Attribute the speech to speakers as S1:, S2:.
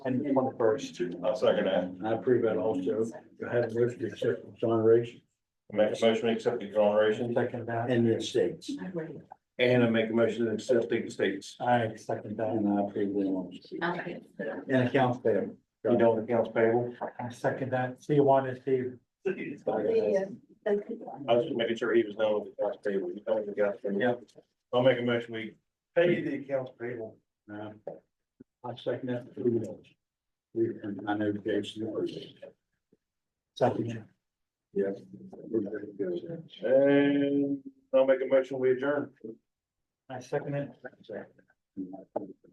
S1: and the twenty-first.
S2: I'll second that.
S3: I approve that also. Go ahead and motion to accept exoneration
S2: Make a motion to accept the exoneration.
S1: Second that,
S3: and the estates.
S2: And I make a motion to accept the states.
S1: I second that,
S3: And I approve them also.
S4: Okay.
S3: And accounts payable.
S2: You know, the accounts payable.
S1: I second that, so you want to see,
S2: I was just making sure he was known with the accounts payable. You know, the accounts payable.
S3: Yeah.
S2: I'll make a motion, we pay the accounts payable.
S3: Uh, I second that. Who knows? We, and I know Jason. knows.
S1: second,
S3: Yep. We're gonna go there.
S2: And I'll make a motion, we adjourn.
S1: I second it.
S3: And I approve